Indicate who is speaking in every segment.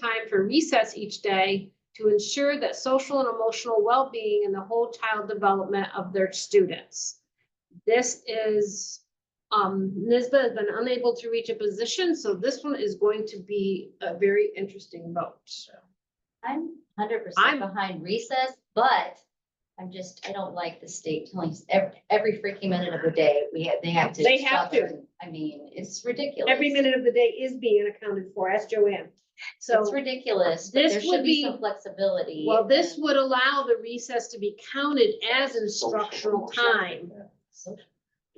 Speaker 1: time for recess each day to ensure that social and emotional well-being and the whole child development of their students. This is, um, NISBA has been unable to reach a position, so this one is going to be a very interesting vote.
Speaker 2: I'm hundred
Speaker 1: I'm-
Speaker 2: percent behind recess, but I'm just, I don't like the state telling us every, every freaking minute of the day, we have, they have to.
Speaker 1: They have
Speaker 2: shove it
Speaker 1: to.
Speaker 2: in. I mean, it's ridiculous.
Speaker 1: Every minute of the day is being accounted for, ask Joanne.
Speaker 2: It's
Speaker 1: So,
Speaker 2: ridiculous, but
Speaker 1: this
Speaker 2: there
Speaker 1: would
Speaker 2: should
Speaker 1: be-
Speaker 2: be some flexibility.
Speaker 1: well, this
Speaker 2: and
Speaker 1: would allow the recess to be counted as instructional time.
Speaker 2: social-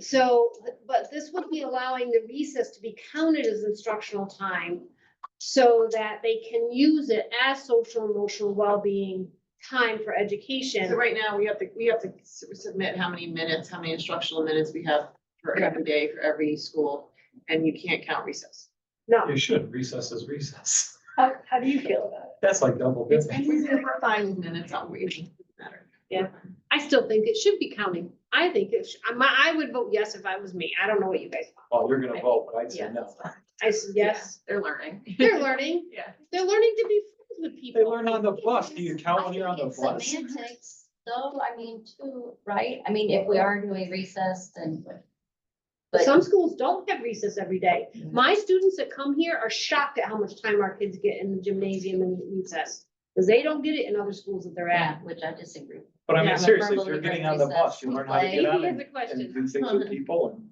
Speaker 1: So, but this would be allowing the recess to be counted as instructional time so that they can use it as social emotional well-being time for education.
Speaker 3: So right now, we have to, we have to s- submit how many minutes, how many instructional minutes we have for every day, for every school, and you can't count recess.
Speaker 1: No,
Speaker 4: You should, recess is recess.
Speaker 1: how, how do you feel about it?
Speaker 4: That's like double
Speaker 3: It's
Speaker 4: dipping.
Speaker 3: easier for five minutes on reading, doesn't matter.
Speaker 1: I still think it should be counting. I think it, sh- I'm- I would vote yes if I was me. I don't know what you guys, want.
Speaker 4: Oh, you're gonna vote, but I'd say
Speaker 3: Yeah,
Speaker 4: no.
Speaker 3: that's fine.
Speaker 1: I said yes.
Speaker 3: They're learning.
Speaker 1: They're learning,
Speaker 3: Yeah.
Speaker 1: they're learning to be friends with
Speaker 4: They
Speaker 1: people.
Speaker 4: learn on the bus. Do you
Speaker 2: I
Speaker 4: count when you're on
Speaker 2: think
Speaker 4: the
Speaker 2: it's
Speaker 4: bus?
Speaker 2: Semantics, though, I mean, too, right? I mean, if we are doing recess, then. But
Speaker 1: Some schools don't have recess every day. My students that come here are shocked at how much time our kids get in the gymnasium and recess. Because they don't get it in other schools that they're at.
Speaker 2: yeah, which I disagree.
Speaker 4: But I
Speaker 2: Yeah,
Speaker 4: mean,
Speaker 2: I'm a
Speaker 4: seriously,
Speaker 2: firm
Speaker 4: if you're
Speaker 2: believer in
Speaker 4: getting on the
Speaker 2: recess.
Speaker 4: bus, you learn how to
Speaker 2: Play.
Speaker 4: get
Speaker 1: Maybe
Speaker 4: on
Speaker 1: here's
Speaker 4: and
Speaker 1: the question.
Speaker 4: and do things with people and.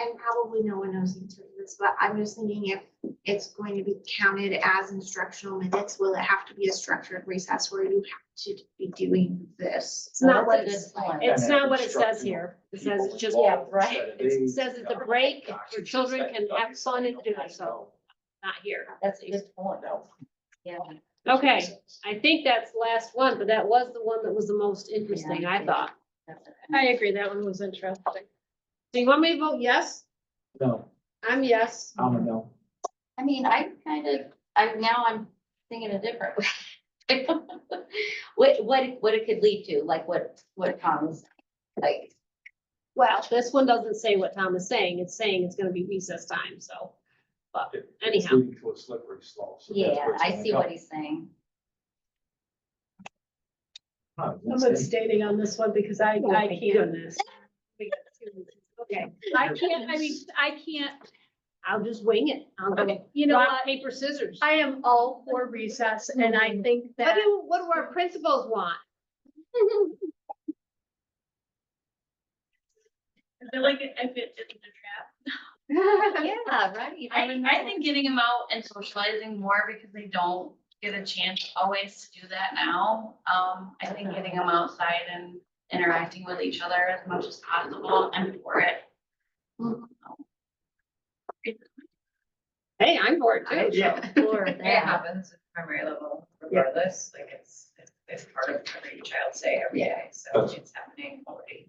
Speaker 5: And probably no one knows the answer to this, but I'm just thinking if it's going to be counted as instructional minutes, will it have to be a structured recess where you have to be doing this?
Speaker 1: It's not
Speaker 2: That's a
Speaker 1: what
Speaker 2: good
Speaker 1: it's-
Speaker 2: point.
Speaker 1: It's
Speaker 4: And have
Speaker 1: not what it says
Speaker 4: instructional
Speaker 1: here. It says it's just,
Speaker 4: people
Speaker 2: Yeah,
Speaker 4: involved
Speaker 2: right.
Speaker 4: instead of
Speaker 1: it
Speaker 4: they-
Speaker 1: says it's a
Speaker 4: Yeah.
Speaker 1: break where
Speaker 4: Gosh,
Speaker 1: children
Speaker 4: that-
Speaker 1: can
Speaker 4: that
Speaker 1: have
Speaker 4: is-
Speaker 1: fun and do
Speaker 4: I
Speaker 1: so.
Speaker 4: know.
Speaker 1: Not here.
Speaker 2: That's a good point.
Speaker 4: No.
Speaker 2: Yeah.
Speaker 1: Okay, I think that's last one, but that was the one that was the most interesting,
Speaker 2: Yeah, I
Speaker 1: I
Speaker 2: think-
Speaker 1: thought.
Speaker 2: that's a-
Speaker 1: I agree, that one was interesting. Do you want me to vote yes?
Speaker 4: No,
Speaker 1: I'm yes.
Speaker 4: I'm a no.
Speaker 2: I mean, I kind of, I'm now I'm thinking a different way. What, what, it- what it could lead to, like what, what comes, like,
Speaker 1: Well, this one doesn't say what Tom is saying. It's saying it's gonna be recess time, so. But
Speaker 4: It- It's
Speaker 1: anyhow,
Speaker 4: leading to a slippery slope. so that's
Speaker 2: yeah,
Speaker 4: where it's
Speaker 2: I
Speaker 4: gonna
Speaker 2: see
Speaker 4: go.
Speaker 2: what he's saying.
Speaker 4: Huh, it's
Speaker 6: I'm
Speaker 4: insane.
Speaker 6: abstaining on this one because I,
Speaker 1: Oh,
Speaker 6: I
Speaker 1: thank
Speaker 6: can't.
Speaker 1: okay, I can't, I mean,
Speaker 6: I can't,
Speaker 1: I'll just wing it. I'll go
Speaker 6: you know,
Speaker 1: rock,
Speaker 6: what?
Speaker 1: paper, scissors.
Speaker 6: I am all for recess and I think
Speaker 1: Mm-hmm. What
Speaker 6: that,
Speaker 1: do, what do our principals want?
Speaker 7: I feel like I fit in the trap.
Speaker 2: Yeah, right.
Speaker 7: I, I think getting them out and socializing more because they don't get a chance always to do that now. Um, I think getting them outside and interacting with each other as much as possible, I'm for it.
Speaker 1: Hey, I'm bored too.
Speaker 7: Yeah.
Speaker 2: Or
Speaker 8: It
Speaker 2: that.
Speaker 8: happens at primary level regardless, like it's, it's- it's part of every child's day every day, so
Speaker 4: That's-
Speaker 8: it's happening already.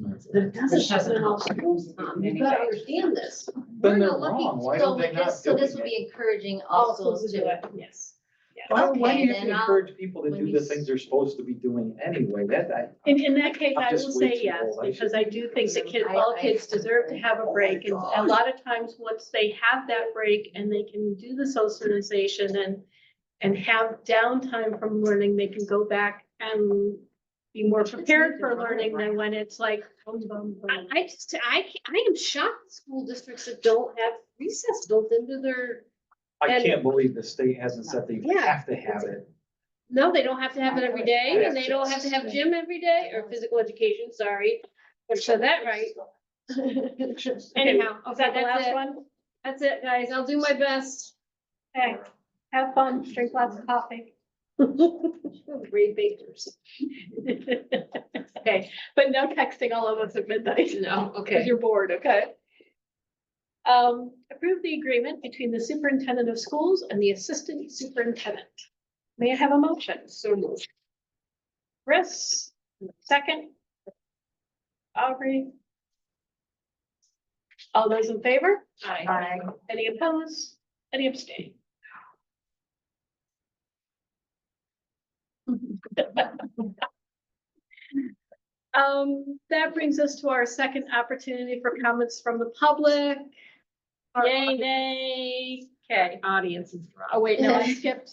Speaker 1: But it doesn't
Speaker 8: Which doesn't
Speaker 1: happen in all schools,
Speaker 2: Um,
Speaker 1: Tom. You've got to understand this. We're
Speaker 4: Then they're
Speaker 1: not looking-
Speaker 4: wrong. Why
Speaker 2: So
Speaker 4: don't they
Speaker 2: with
Speaker 4: not
Speaker 2: this, so
Speaker 4: doing
Speaker 2: this would
Speaker 4: it?
Speaker 2: be encouraging all
Speaker 1: All
Speaker 2: schools
Speaker 1: schools do
Speaker 2: to.
Speaker 1: it, yes.
Speaker 4: Why, why do
Speaker 2: Okay,
Speaker 4: you have to
Speaker 2: then I'll-
Speaker 4: encourage people to
Speaker 2: when
Speaker 4: do
Speaker 2: you
Speaker 4: the
Speaker 2: s-
Speaker 4: things they're supposed to be doing anyway? That, I,
Speaker 6: in, in that case,
Speaker 4: I'm
Speaker 6: I will
Speaker 4: just way
Speaker 6: say
Speaker 4: too
Speaker 6: yes,
Speaker 4: old. I
Speaker 6: because I do think that kids,
Speaker 2: I-
Speaker 6: all
Speaker 2: I-
Speaker 6: kids deserve to have a
Speaker 4: Oh my
Speaker 6: break. And a
Speaker 4: gosh.
Speaker 6: lot of times, once they have that break and they can do the socialization and, and have downtime from learning, they can go back and be more prepared for learning than when it's like, boom, boom, boom.
Speaker 1: I, I just, I, can't- I am shocked school districts that don't have recess built into their,
Speaker 4: I
Speaker 1: And-
Speaker 4: can't believe the state hasn't said they
Speaker 1: Yeah.
Speaker 4: have to have it.
Speaker 1: no, they don't have to have it every day and they don't have to have gym every day or physical education, sorry. I said that right. Anyhow,
Speaker 6: Is
Speaker 1: okay,
Speaker 6: that the
Speaker 1: that's
Speaker 6: last
Speaker 1: it.
Speaker 6: one?
Speaker 1: That's it, guys. I'll do my best.
Speaker 6: Okay, have fun, drink lots of coffee.
Speaker 1: Great bakers.
Speaker 6: Okay, but no texting all of us at midnight.
Speaker 1: No,
Speaker 6: Because
Speaker 1: okay.
Speaker 6: you're bored, okay? Um, approve the agreement between the superintendent of schools and the assistant superintendent. May I have a motion?
Speaker 1: So moved.
Speaker 6: Chris, second. Aubrey. All those in favor?
Speaker 2: Aye.
Speaker 6: Any opposed? Any abstain? Um, that brings us to our second opportunity for comments from the public. Our-
Speaker 1: Yay, nay.
Speaker 6: Okay,
Speaker 1: Audience is.
Speaker 6: oh wait, no, I skipped